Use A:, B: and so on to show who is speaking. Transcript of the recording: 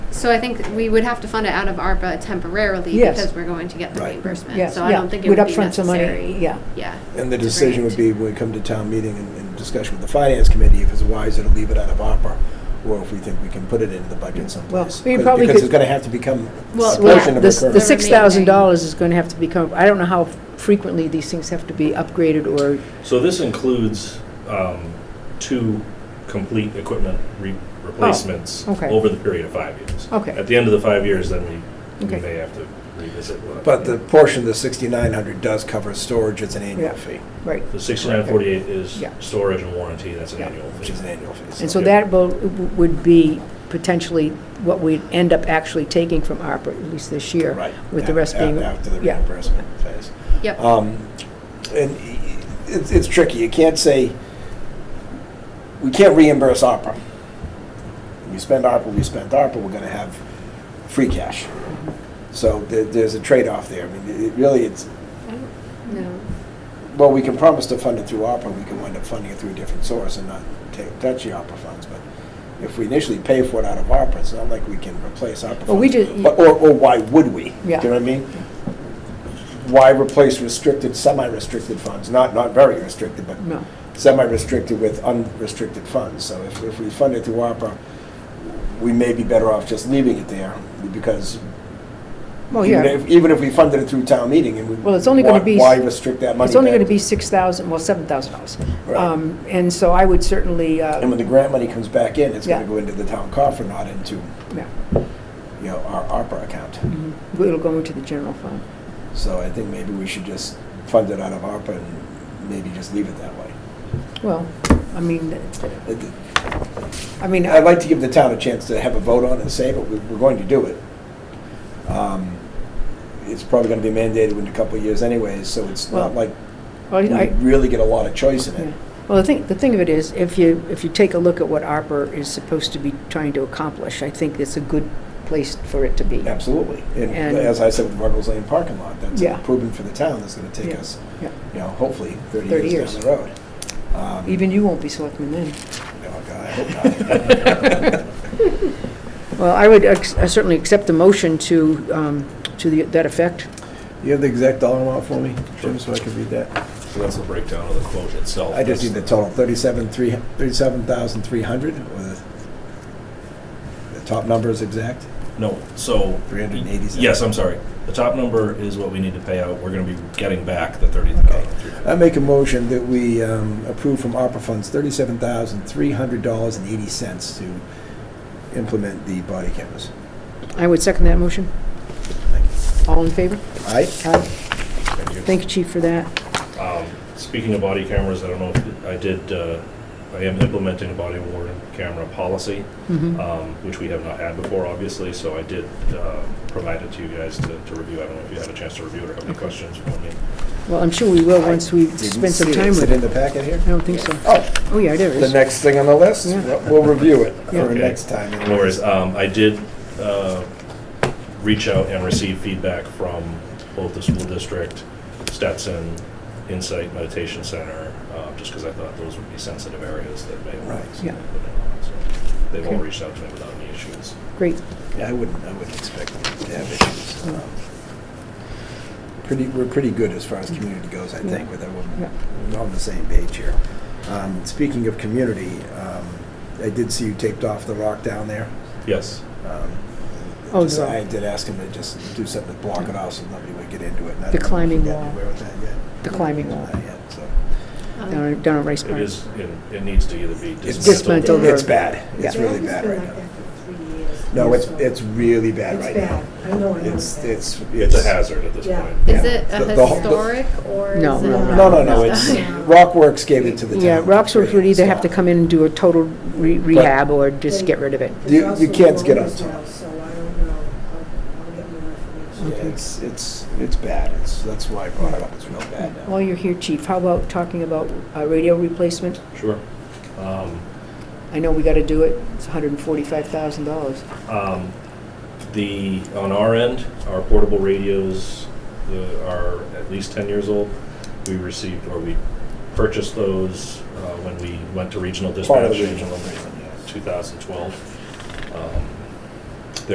A: So I think we would have to fund it out of ARPA temporarily
B: Yes.
A: because we're going to get the
C: Right.
A: reimbursement.
B: Yes,
A: So I
B: yeah.
A: don't think it
B: We'd
A: would be
B: upfront some money,
A: necessary.
B: yeah.
A: Yeah.
C: And
A: to
C: the
A: bring
C: decision
A: it
C: would
A: to-
C: be, when we come to town meeting and, and discussion with the finance committee, if it's wiser to leave it out of ARPA, or if we think we can put it into the budget someplace.
B: we
C: Because-
B: probably
C: Because
B: could-
C: it's gonna have to become a
A: Well,
B: Well,
C: portion of
B: the
C: the
B: s-
C: current.
B: the six thousand dollars is going to have to become, I don't know how frequently these things have to be upgraded or,
D: So this includes um, two complete equipment re- replacements
B: Oh, okay.
D: over the period of five years.
B: Okay.
D: At the end of the five years, then we, we
B: Okay.
D: may have to revisit what.
C: But the portion of the sixty-nine hundred does cover storage, it's an annual
B: Yeah.
C: fee,
B: right.
D: The sixty-nine forty-eight is
B: Yeah.
D: storage and warranty, that's an
B: Yeah.
D: annual
C: which
D: fee.
C: is an annual fee.
B: And so
D: Okay.
B: that will, would be potentially what we'd end up actually taking from ARPA, at least this year.
C: Right.
B: With the
C: a-
B: rest
C: a-
B: being,
C: After the
B: yeah.
C: reimbursement phase.
A: Yep.
C: Um, And i- it's, it's tricky, you can't say, we can't reimburse ARPA. We spend ARPA, we spend ARPA, we're gonna have free cash. So there, there's a trade-off there, I mean, it really, it's,
A: No.
C: well, we can promise to fund it through ARPA, we can wind up funding it through a different source and not take, touch the ARPA funds, but if we initially pay for it out of ARPA, it's not like we can replace ARPA funds.
B: Well, we ju-
C: But- Or, or why would we?
B: Yeah.
C: Do you know what I mean? Why replace restricted, semi-restricted funds, not, not very restricted, but
B: No.
C: semi-restricted with unrestricted funds. So if, if we fund it through ARPA, we may be better off just leaving it there, because
B: Well,
C: even
B: Oh, yeah.
C: if, even if we funded it through town meeting and we.
B: Well, it's only gonna
C: why-
B: be-
C: Why restrict that money?
B: It's only
C: back
B: going to be six thousand, well, seven thousand dollars. Um,
C: Right.
B: And so I would certainly,
C: And
B: uh,
C: when the grant money comes back in, it's
B: Yeah.
C: gonna go into the town coffer, not into,
B: yeah,
C: you know, our ARPA account.
B: it'll go into the general fund.
C: So I think maybe we should just fund it out of ARPA and maybe just leave it that way.
B: Well, I mean,
C: It-
B: I mean,
C: I'd like to give the town a chance to have a vote on it and say, but we- we're going to do it. Um, It's probably gonna be mandated in a couple of years anyways, so it's not
B: Well,
C: like we
B: I, I-
C: really get a lot of choice in it.
B: Yeah. Well, the thing, the thing of it is, if you, if you take a look at what ARPA is supposed to be trying to accomplish, I think it's a good place for it to be.
C: Absolutely. And
B: And-
C: as I said with Ruggles Lane parking lot, that's an
B: Yeah.
C: improvement for the town that's gonna take
B: Yeah.
C: us,
B: Yeah.
C: you know, hopefully thirty
B: 30
C: years down
B: years.
C: the road. Um,
B: Even you won't be selectman then.
C: Oh, God, I hope not.
B: Well, I would ex- I certainly accept the motion to, um, to the- that effect.
C: You have the exact dollar amount for me, Jim, so I can read that?
D: So that's the breakdown of the quote itself.
C: I just need the
D: That's-
C: total, thirty-seven, three, thirty-seven thousand, three hundred, or the, the top number is exact?
D: No, so.
C: 387.
D: Yes, I'm sorry. The top number is what we need to pay out. We're gonna be getting back the thirty thousand.
C: I make a motion that we um, approve from ARPA funds thirty-seven thousand, three hundred dollars and eighty cents to implement the body cameras.
B: I would second that motion.
C: Thank
B: All in favor?
C: Aye?
B: Aye. Thank you, Chief, for that.
D: Um, Speaking of body cameras, I don't know if, I did, uh, I am implementing a body worn camera policy,
B: Mm-hmm.
D: um, which we have not had before, obviously, so I did uh, provide it to you guys to to review. I don't know if you had a chance to review it or have any questions for me.
B: Well, I'm sure we will once we
C: Didn't
B: spend some
C: see it.
B: time
C: Is
B: with
C: it in
B: it.
C: the packet here?
B: I don't think so.
C: Oh,
B: Oh, yeah, there it
C: the
B: is.
C: next thing on the list,
B: Yeah.
C: we'll review it for
D: Okay.
C: next time.
D: No worries. Um, I did uh, reach out and receive feedback from both the school district, Stetson, Insight Meditation Center, uh, just because I thought those would be sensitive areas that may.
C: Right.
B: Yeah.
D: So They've all
B: Okay.
D: reached out to me without any issues.
B: Great.
C: Yeah, I wouldn't, I wouldn't expect them to have issues. Um, Pretty, we're pretty good as far as community goes, I think, with
B: Yeah.
C: everyone, we're all on the same page here. Um, Speaking of community, um, I did see you taped off the rock down there.
D: Yes.
C: Um,
B: Oh,
C: just-
B: the-
C: I did ask him to just do something to block it off so nobody would get into it. and
B: The
C: I don't know if he
B: climbing
C: got
B: wall.
C: anywhere with that yet.
B: The climbing wall
C: Not yet, so.
A: Um,
B: down at- down at Rice
D: It
B: Park.
D: is, it it needs to either be
C: It's-
B: Dismantled
D: dismantled.
B: or-
C: It's bad, it's
B: Yeah.
C: really bad right now. No, it's, it's really bad right now.
E: I know, I know.
C: It's, it's.
D: It's a hazard at this
E: Yeah.
D: point.
A: Is
C: Yeah.
A: it a
C: The- the whole- the-
A: historic or is it?
B: No, no,
A: not?
C: No, no, no, it's, Rockworks gave it to the town.
B: Yeah, Roxbury would either have to
C: Stop.
B: come in and do a total re- rehab or just get rid of it.
C: You- you
E: It's also
C: can't get on
E: Rotary
C: top.
E: House, So I don't know, I'll, I'll get more
C: Yeah,
E: information.
C: it's, it's, it's bad, it's, that's why I brought it up, it's real bad now.
B: While you're here, Chief, how about talking about uh, radio replacement?
D: Sure. Um,
B: I know we got to do it, it's $145,000.
D: Um, The, on our end, our portable radios the- are at least 10 years old. We received, or we purchased those uh, when we went to regional
C: Part of
D: dispatch
C: the
D: in
C: regional agreement, yes.
D: 2012. Um,